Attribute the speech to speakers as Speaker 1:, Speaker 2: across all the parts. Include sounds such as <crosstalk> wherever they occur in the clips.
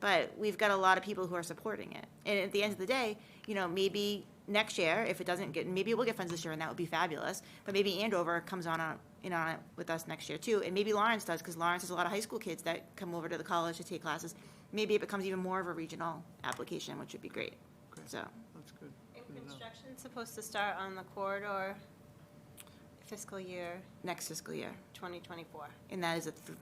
Speaker 1: But we've got a lot of people who are supporting it. And at the end of the day, you know, maybe next year, if it doesn't get, maybe it will get funds this year, and that would be fabulous. But maybe Andover comes on, on- in on it with us next year too, and maybe Lawrence does, because Lawrence has a lot of high school kids that come over to the college to take classes. Maybe it becomes even more of a regional application, which would be great, so.
Speaker 2: That's good.
Speaker 3: And
Speaker 2: Good enough.
Speaker 3: construction's supposed to start on the corridor fiscal year
Speaker 1: next fiscal year.
Speaker 3: 2024.
Speaker 1: And that is a th-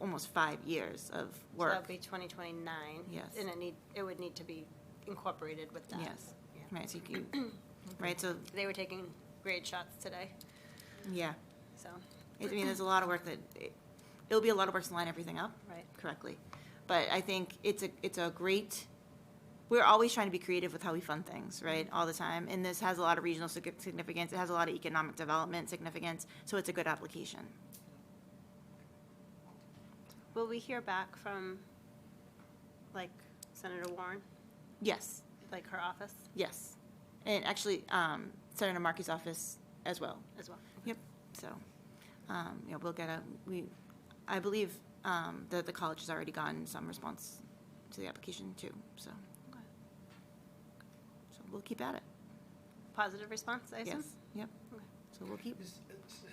Speaker 1: almost five years of
Speaker 3: So that'd
Speaker 1: work.
Speaker 3: be 2029.
Speaker 1: Yes.
Speaker 3: And it need, it would need to be incorporated with that.
Speaker 1: Yes.
Speaker 3: Yeah.
Speaker 1: Right, so
Speaker 3: <clears throat>
Speaker 1: you, can- right, so,
Speaker 3: They were taking grade shots today,
Speaker 1: yeah.
Speaker 3: so,
Speaker 1: I mean, there's a lot of work that, it- it'll be a lot of work to line everything up
Speaker 3: right.
Speaker 1: correctly. But I think it's a, it's a great, we're always trying to be creative with how we fund things, right, all the time. And this has a lot of regional sig- significance, it has a lot of economic development significance, so it's a good application.
Speaker 3: Will we hear back from, like, Senator Warren,
Speaker 1: Yes,
Speaker 3: like her office
Speaker 1: yes. And actually, um, Senator Markey's office as well,
Speaker 3: as well?
Speaker 1: Yep, so, um, you know, we'll get a, we, I believe, um, that the college has already gotten some response to the application too, so. So we'll keep at it,
Speaker 3: Positive response, I assume?
Speaker 1: yes, yep,
Speaker 3: Okay.
Speaker 1: so we'll keep,
Speaker 2: Is- is-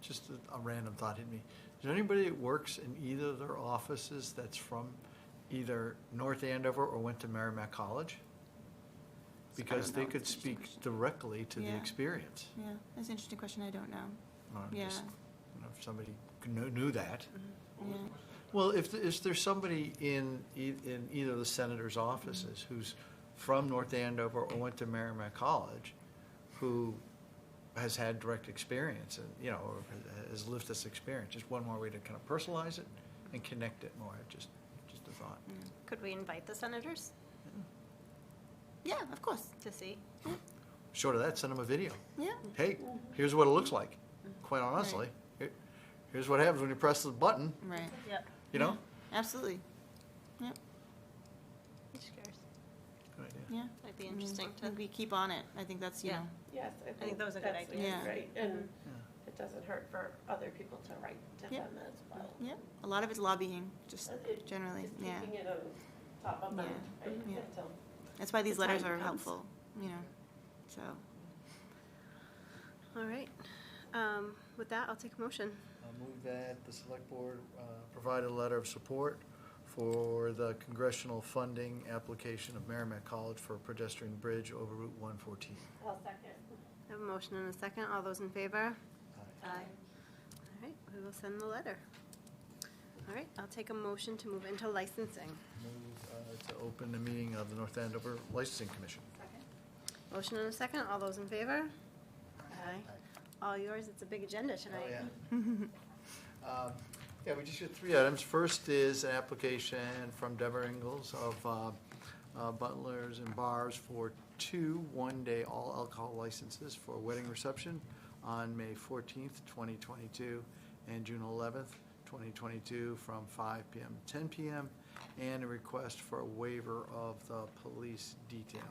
Speaker 2: Just a- a random thought hit me. Is there anybody that works in either of their offices that's from either North Andover or went to Merrimack College? Because
Speaker 1: don't
Speaker 2: they
Speaker 1: know.
Speaker 2: could
Speaker 1: It's an interesting
Speaker 2: speak
Speaker 1: question.
Speaker 2: directly to the
Speaker 1: Yeah.
Speaker 2: experience.
Speaker 1: yeah, that's an interesting question, I don't know,
Speaker 2: I'm
Speaker 1: yeah,
Speaker 2: just- you know, If somebody knew knew that.
Speaker 3: Mm-hmm.
Speaker 1: yeah,
Speaker 2: Well, if, th- is there somebody in, e- in either of the senator's offices who's from North Andover or went to Merrimack College who has had direct experience and, you know, or has lived this experience? Just one more way to kind of personalize it and connect it more, just, just a thought.
Speaker 3: Could we invite the senators
Speaker 1: yeah, of course,
Speaker 3: to see?
Speaker 2: Short of that, send them a video.
Speaker 1: yeah,
Speaker 2: Hey, here's what it looks like, quite honestly. Here- Here's what happens when you press the button,
Speaker 1: right,
Speaker 3: Yep.
Speaker 2: you know?
Speaker 1: absolutely, yep,
Speaker 3: Just curious.
Speaker 2: Good idea.
Speaker 1: yeah.
Speaker 3: That'd be
Speaker 1: I mean,
Speaker 3: interesting
Speaker 1: I
Speaker 3: to,
Speaker 1: think We keep on it, I think that's, you
Speaker 3: Yeah.
Speaker 1: know,
Speaker 4: Yes, I think.
Speaker 3: that was a good
Speaker 4: that's-
Speaker 3: idea.
Speaker 4: that's
Speaker 1: Yeah.
Speaker 4: Right, and it doesn't hurt for other people to write to
Speaker 1: Yeah.
Speaker 4: them as well.
Speaker 1: yeah, a lot of it's lobbying, just
Speaker 4: And it-
Speaker 1: generally,
Speaker 4: Just
Speaker 1: yeah,
Speaker 4: keeping it on top of
Speaker 1: Yeah.
Speaker 4: mind, right,
Speaker 1: Yeah.
Speaker 4: until
Speaker 1: that's why these
Speaker 4: the
Speaker 1: letters
Speaker 4: time
Speaker 1: are
Speaker 4: comes.
Speaker 1: helpful, you know, so.
Speaker 3: all right. Um, With that, I'll take a motion.
Speaker 2: I move that the select board uh, provide a letter of support for the congressional funding application of Merrimack College for a pedestrian bridge over Route 114.
Speaker 4: I'll second.
Speaker 3: I have a motion and a second. All those in favor?
Speaker 2: Aye.
Speaker 3: Aye. All right, we will send the letter. All right, I'll take a motion to move into licensing.
Speaker 2: Move uh, to open the meeting of the North Andover Licensing Commission.
Speaker 3: Motion and a second, all those in favor? Aye. All yours, it's a big agenda tonight.
Speaker 2: Oh, Um, Yeah, we just got three items. First is an application from Deborah Ingles of uh, uh, Butlers and Bars for two one-day all alcohol licenses for a wedding reception on May fourteenth, twenty twenty-two, and June eleventh, twenty twenty-two, from five PM to ten PM, and a request for a waiver of the police detail.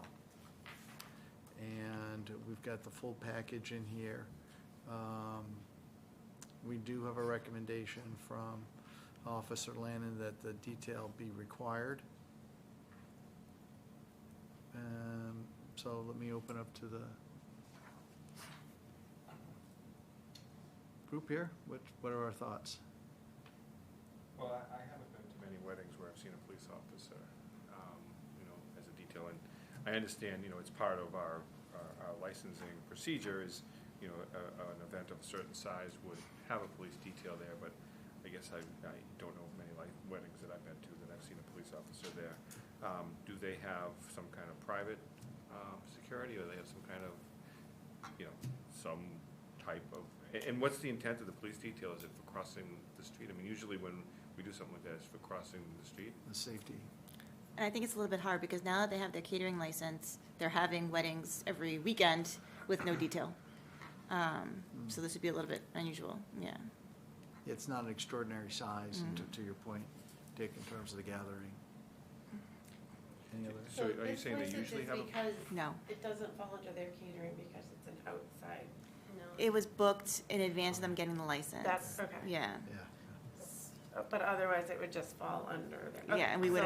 Speaker 2: And we've got the full package in here. Um, we do have a recommendation from Officer Lannon that the detail be required. Um, So let me open up to the group here. What, what are our thoughts?
Speaker 5: Well, I, I haven't been to many weddings where I've seen a police officer, um, you know, as a detail, and I understand, you know, it's part of our, our our licensing procedure is, you know, a, an event of a certain size would have a police detail there, but I guess I, I don't know of many like weddings that I've been to that I've seen a police officer there. Um, do they have some kind of private, um, security, or they have some kind of, you know, some type of, a- and what's the intent of the police detail? Is it for crossing the street? I mean, usually when we do something like that, it's for crossing the street.
Speaker 2: The safety.
Speaker 1: And I think it's a little bit hard because now that they have their catering license, they're having weddings every weekend with no detail. Um, So this would be a little bit unusual, yeah.
Speaker 2: It's not an extraordinary size, and to to your point, Dick, in terms of the gathering. Any other?
Speaker 5: So are you saying they usually have a-
Speaker 4: This license is because
Speaker 1: No.
Speaker 4: it doesn't fall under their catering because it's an outside.
Speaker 3: No.
Speaker 1: It was booked in advance of them getting the license.
Speaker 4: That's, okay.
Speaker 1: Yeah,
Speaker 2: Yeah.
Speaker 4: But otherwise, it would just fall under. their-
Speaker 1: yeah, and we
Speaker 4: Okay,
Speaker 1: would
Speaker 4: so-